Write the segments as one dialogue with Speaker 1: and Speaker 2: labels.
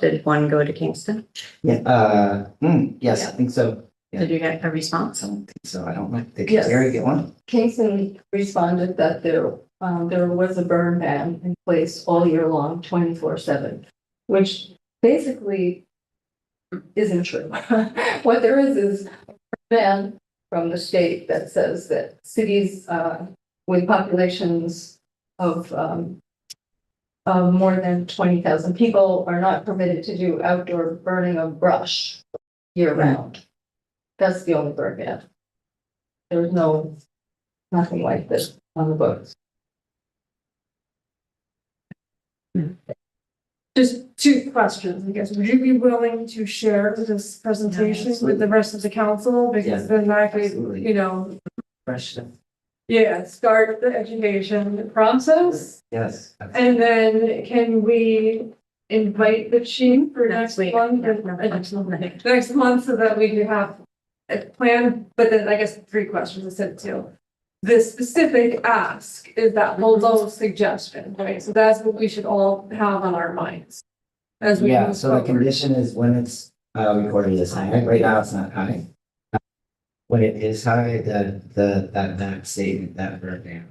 Speaker 1: Did one go to Kingston?
Speaker 2: Yeah, uh, hmm, yes, I think so. Yeah.
Speaker 1: Did you get a response?
Speaker 2: I don't think so. I don't know. Did
Speaker 3: Yes.
Speaker 2: Gary get one?
Speaker 3: Kingston responded that there, um, there was a burn ban in place all year long, twenty-four seven, which basically isn't true. What there is is a ban from the state that says that cities, uh, with populations of, um, of more than twenty thousand people are not permitted to do outdoor burning of brush year round. That's the only burn ban. There's no nothing like this on the books.
Speaker 4: Just two questions, I guess. Would you be willing to share this presentation with the rest of the council? Because then I could,
Speaker 2: Absolutely.
Speaker 4: you know,
Speaker 2: Question.
Speaker 4: yeah, start the education process.
Speaker 2: Yes.
Speaker 4: And then can we invite the chief for
Speaker 1: Next
Speaker 4: next
Speaker 1: week.
Speaker 4: month?
Speaker 1: Yeah, no, next month.
Speaker 4: Next month so that we can have a plan, but then I guess three questions instead of two. The specific ask is that below suggestion, right? So that's what we should all have on our minds. As we.
Speaker 2: Yeah,
Speaker 4: move
Speaker 2: so the
Speaker 4: forward.
Speaker 2: condition is when it's uh recorded as high, right now it's not high. Uh, When it is high, the the that that statement, that verbatim.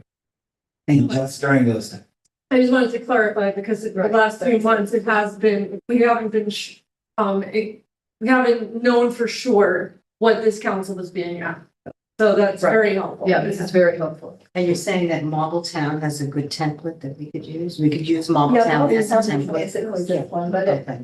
Speaker 2: And just during those times.
Speaker 4: I just wanted to clarify because the
Speaker 3: Right.
Speaker 4: last few months it has been, we haven't been, sh- um, it- we haven't known for sure what this council is being at. So that's
Speaker 3: Right.
Speaker 4: very helpful.
Speaker 3: very helpful.
Speaker 5: And you're saying that Marble Town has a good template that we could use? We could use Marble
Speaker 3: Yeah,
Speaker 5: Town
Speaker 3: that
Speaker 5: as a
Speaker 3: sounds
Speaker 5: template?
Speaker 3: basically just one, but I
Speaker 5: Okay.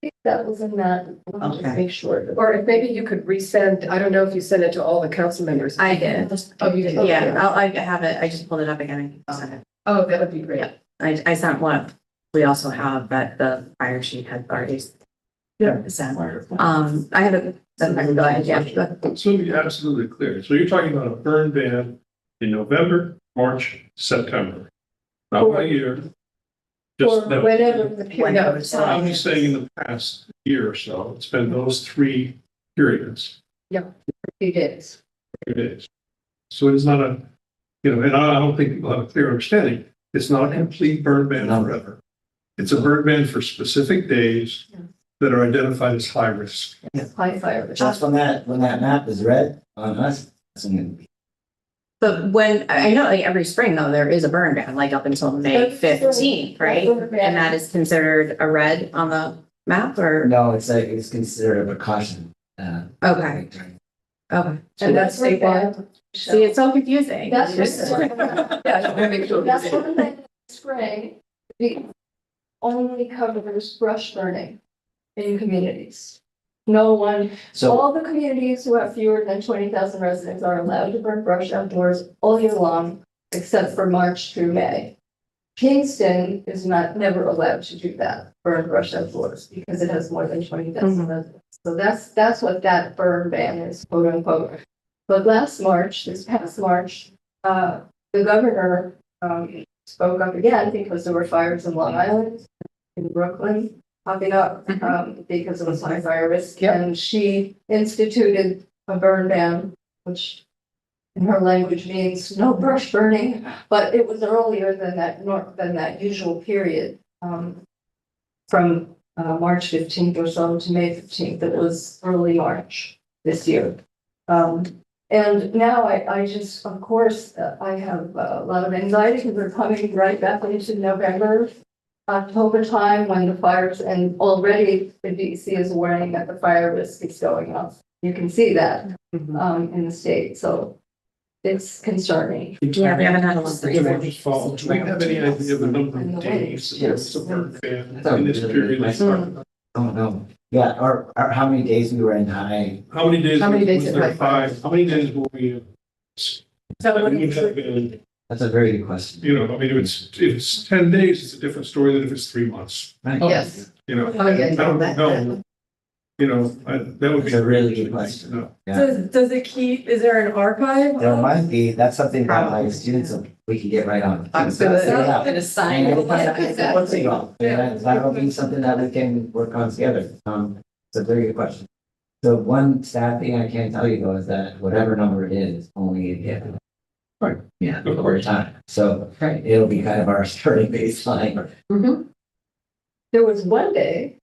Speaker 3: think that was in that, I'll just
Speaker 5: Okay.
Speaker 3: make sure.
Speaker 6: Or if maybe you could resend, I don't know if you sent it to all the council members.
Speaker 1: I did.
Speaker 6: Oh, you did?
Speaker 1: Yeah, I'll, I have it. I just pulled it up again. I can send it.
Speaker 6: Oh, that would be great.
Speaker 1: I, I sent one. We also have, but the fire sheet had already. Sent. Um, I have a. sent back, go ahead, yeah.
Speaker 7: So to be absolutely clear, so you're talking about a burn ban in November, March, September. Not
Speaker 3: Or-
Speaker 7: one year.
Speaker 3: Or
Speaker 7: Just them.
Speaker 3: whatever the period
Speaker 1: Whenever
Speaker 3: of
Speaker 1: it's
Speaker 7: I'm
Speaker 3: time.
Speaker 7: just saying in the past year or so, it's been those three periods,
Speaker 3: Few days.
Speaker 7: it is. So it is not a, you know, and I I don't think people have a clear understanding. It's not a complete burn ban
Speaker 2: No.
Speaker 7: forever. It's a burn ban for specific days that are identified as high risk.
Speaker 3: High fire. risk.
Speaker 2: Just when that, when that map is red on us, it's gonna be.
Speaker 1: But when, I I know like every spring though, there is a burn ban, like up until May
Speaker 3: That's true.
Speaker 1: fifteenth, right? And that is considered a red on the map or,
Speaker 2: No, it's like, it's considered a precaution. uh,
Speaker 1: okay,
Speaker 2: during-
Speaker 1: okay.
Speaker 3: And that's
Speaker 1: See,
Speaker 3: statewide.
Speaker 1: it's so confusing.
Speaker 3: That's statewide.
Speaker 6: Yeah, I just wanna make sure.
Speaker 3: That's one thing, spray, the only covers brush burning in communities. No one
Speaker 2: So,
Speaker 3: All the communities who have fewer than twenty thousand residents are allowed to burn brush outdoors all year long, except for March through May. Kingston is not, never allowed to do that, burn brush outdoors, because it has more than twenty thousand residents. So that's, that's what that burn ban is, quote unquote. But last March, this past March, uh, the governor, um, spoke up again because there were fires in Long Island, in Brooklyn popping up
Speaker 1: Mhm.
Speaker 3: um because it was high fire risk.
Speaker 6: Yep.
Speaker 3: And she instituted a burn ban, which in her language means no brush burning, but it was earlier than that nor than that usual period. Um, from uh March fifteenth or so to May fifteenth, it was early March this year. Um, and now I, I just, of course, uh, I have a lot of anxiety because we're coming right back into November. October time when the fires, and already the DEC is warning that the fire risk is going up. You can see that, um, in the state, so it's concerning.
Speaker 1: Yeah, we haven't had a lot
Speaker 7: Do
Speaker 1: of.
Speaker 7: we follow- do we have any idea of the number of days that it's a burn ban in this period? that started?
Speaker 2: I don't know. Yeah, or, or how many days we were in high,
Speaker 7: How many days
Speaker 6: How many days
Speaker 7: was
Speaker 6: it
Speaker 7: there
Speaker 6: went by?
Speaker 7: five? How many days were we?
Speaker 4: So what
Speaker 7: That
Speaker 4: do you
Speaker 7: would have
Speaker 4: think?
Speaker 7: been,
Speaker 2: that's a very good question.
Speaker 7: you know, I mean, if it's, if it's ten days, it's a different story than if it's three months,
Speaker 2: Right?
Speaker 6: Yes.
Speaker 7: you know?
Speaker 6: Oh, yeah,
Speaker 7: I don't
Speaker 6: that-
Speaker 7: know. You know, I, that would be.
Speaker 2: That's a really good question.
Speaker 7: No.
Speaker 2: Yeah.
Speaker 4: Does, does it keep, is there an archive?
Speaker 2: There
Speaker 4: of-
Speaker 2: might be, that's something that my students, we can get right on.
Speaker 6: I'm gonna, I'm
Speaker 2: Yeah.
Speaker 6: gonna sign
Speaker 2: And
Speaker 6: it.
Speaker 2: What's it about?
Speaker 4: Yeah.
Speaker 2: And that'll be something that we can work on together. Um, it's a very good question. So one sad thing I can tell you though is that whatever number it is, only it hit.
Speaker 7: Right.
Speaker 2: Yeah,
Speaker 7: Of
Speaker 2: over time. So it'll be kind of our starting baseline.
Speaker 3: There was one day